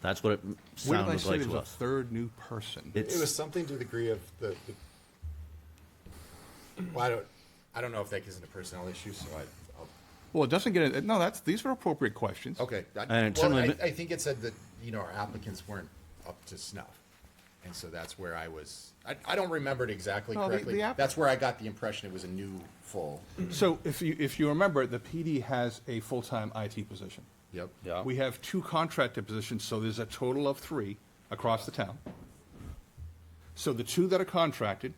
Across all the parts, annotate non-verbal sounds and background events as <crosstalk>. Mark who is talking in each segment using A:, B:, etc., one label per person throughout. A: That's what it
B: Where did I
A: sounded
B: say
A: like
B: there
A: to
B: was a
A: us.
B: third new person?
C: It was
A: It's,
C: something to the degree of the, the- well, I don't, I don't know if that isn't a personnel issue, so I, I'll,
B: Well, it doesn't get, it- no, that's, these are appropriate questions.
C: okay. I-
A: And
C: Well, I,
A: similarly-
C: I think it said that, you know, our applicants weren't up to snuff. And so that's where I was, I, I don't remember it exactly
B: No, the- the
C: correctly.
B: app-
C: That's where I got the impression it was a new full.
B: So if you, if you remember, the PD has a full-time IT position.
C: Yep.
A: Yeah.
B: We have two contractor positions, so there's a total of three across the town. So the two that are contracted,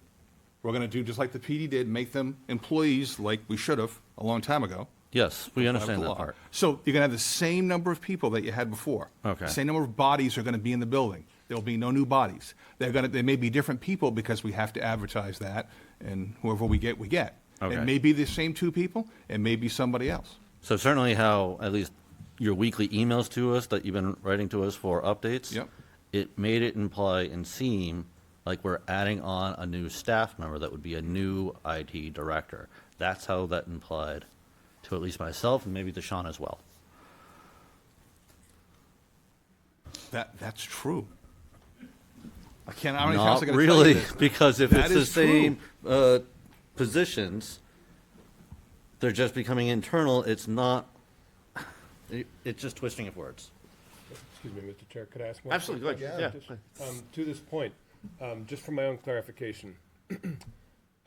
B: we're gonna do just like the PD did, make them employees like we should have a long time ago.
A: yes, we understand
B: the
A: that
B: law.
A: part.
B: So you're gonna have the same number of people that you had before.
A: Okay.
B: Same number of bodies are gonna be in the building. There'll be no new bodies. They're gonna, they may be different people because we have to advertise that, and whoever we get, we get.
A: Okay.
B: It may be the same two people, it may be somebody else.
A: So certainly how, at least your weekly emails to us that you've been writing to us for updates.
B: Yep.
A: It made it imply and seem like we're adding on a new staff member that would be a new IT director. That's how that implied to at least myself and maybe to Sean as well.
B: That, that's true. I can't, how many times
A: Not
B: I gotta tell you
A: really,
B: this?
A: <laughs> because if
B: That
A: it's the
B: is true.
A: same uh, positions, they're just becoming internal. It's not, it- it's just twisting of words.
D: Excuse me, Mr. Chair, could I ask one?
E: Absolutely, go
D: quick
E: ahead.
D: question?
E: Yeah,
D: Just, Um, to this point, um, just for my own clarification, <clears throat>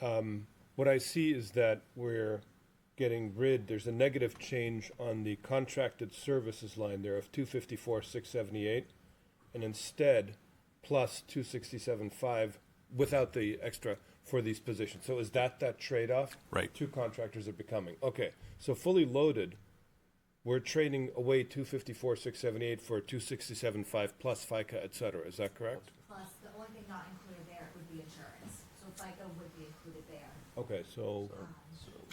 D: um, what I see is that we're getting rid, there's a negative change on the contracted services line there of two fifty-four, six seventy-eight, and instead, plus two sixty-seven, five, without the extra for these positions. So is that that trade-off?
B: Right.
D: Two contractors are becoming, okay, so fully loaded, we're trading away two fifty-four, six seventy-eight for two sixty-seven, five plus FICA, et cetera, is that correct?
F: Plus, the only thing not included there would be insurance, so FICA would be included there.
D: Okay, so,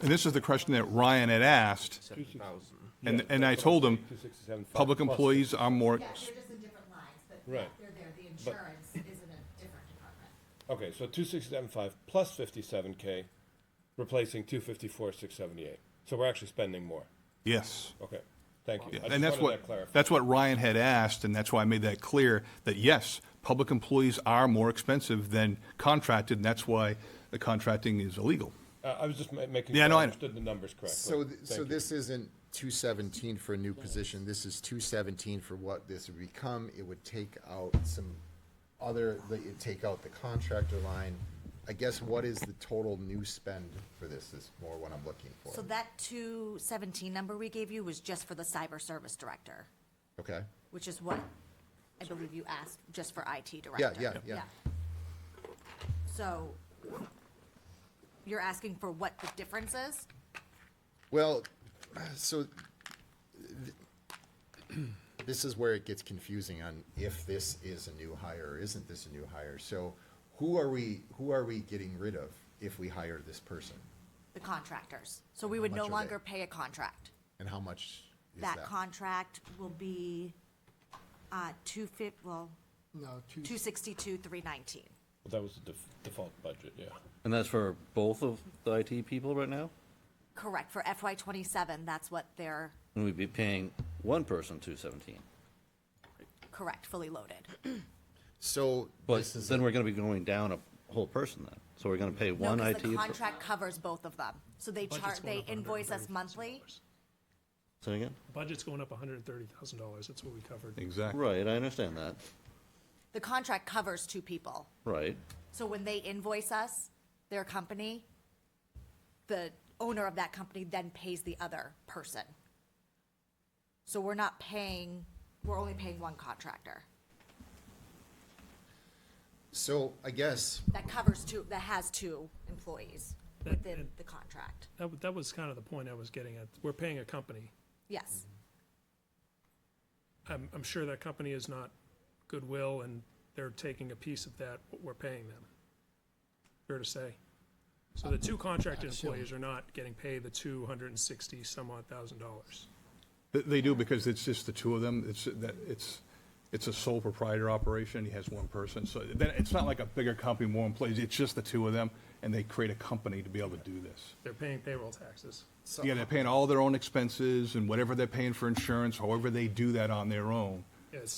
B: And this is the question that Ryan had asked, and, and I told him,
D: two sixty-seven, five.
B: public employees are more,
F: Yeah, they're just in different lines, but
D: Right.
F: they're there, the insurance is in a different department.
D: Okay, so two sixty-seven, five plus fifty-seven K, replacing two fifty-four, six seventy-eight, so we're actually spending more,
B: yes.
D: okay, thank
B: Yeah,
D: you. I
B: And
D: just
B: that's
D: wanted
B: what,
D: that clarified.
B: that's what Ryan had asked, and that's why I made that clear, that yes, public employees are more expensive than contracted, and that's why the contracting is illegal.
D: Uh, I was just ma- making
B: Yeah,
D: sure
B: no, I know.
D: I understood the numbers correctly.
C: So, th- so
D: Thank you.
C: this isn't two seventeen for a new position, this is two seventeen for what this would become, it would take out some other, the- it'd take out the contractor line. I guess what is the total new spend for this, is more what I'm looking
F: So
C: for,
F: that two seventeen number we gave you was just for the cyber service director,
C: okay?
F: which is what I believe you asked, just for IT
C: Yeah,
F: director.
C: yeah, yeah,
F: So you're asking for what the difference is?
C: well, so th- <clears throat> this is where it gets confusing on if this is a new hire or isn't this a new hire, so who are we, who are we getting rid of if we hire this person?
F: The contractors. So we would
C: much
F: no
C: are they?
F: longer pay a contract.
C: And how much is that?
F: That contract will be, uh, two fif, well,
G: No, two,
F: two sixty-two, three nineteen.
D: Well, That was the def- default budget, yeah.
A: And that's for both of the IT people right now?
F: Correct, for FY twenty-seven, that's what they're,
A: And we'd be paying one person two seventeen.
F: correct, fully loaded.
C: So
A: But
C: this is
A: then we're gonna be going down a whole person then. So we're gonna pay
F: No,
A: one
F: 'cause
A: IT.
F: the
A: per-
F: contract covers both of them, so they chart,
H: Budget's going
F: they
H: up
F: invoice us
H: $130,000.
F: monthly.
A: Say again?
H: Budget's going up hundred and thirty thousand dollars, that's what we covered.
B: Exactly.
A: Right, I understand that.
F: The contract covers two people,
A: Right.
F: so when they invoice us, their company, the owner of that company then pays the other person. So we're not paying, we're only paying one contractor,
C: so I guess
F: that covers two, that has two employees within the contract,
H: That, wa- that was kind of the point I was getting at. We're paying a company.
F: yes.
H: I'm, I'm sure that company is not Goodwill and they're taking a piece of that, but we're paying them. Fair to say. So the two contracted employees are not getting paid the two hundred and sixty some odd thousand dollars.
B: They- They do, because it's just the two of them, it's, that, it's, it's a sole proprietor operation, he has one person, so then, it's not like a bigger company, more employees, it's just the two of them, and they create a company to be able to do this.
H: They're paying payroll taxes.
B: Yeah, they're paying all their own expenses and whatever they're paying for insurance, however they do that on their own.
H: It's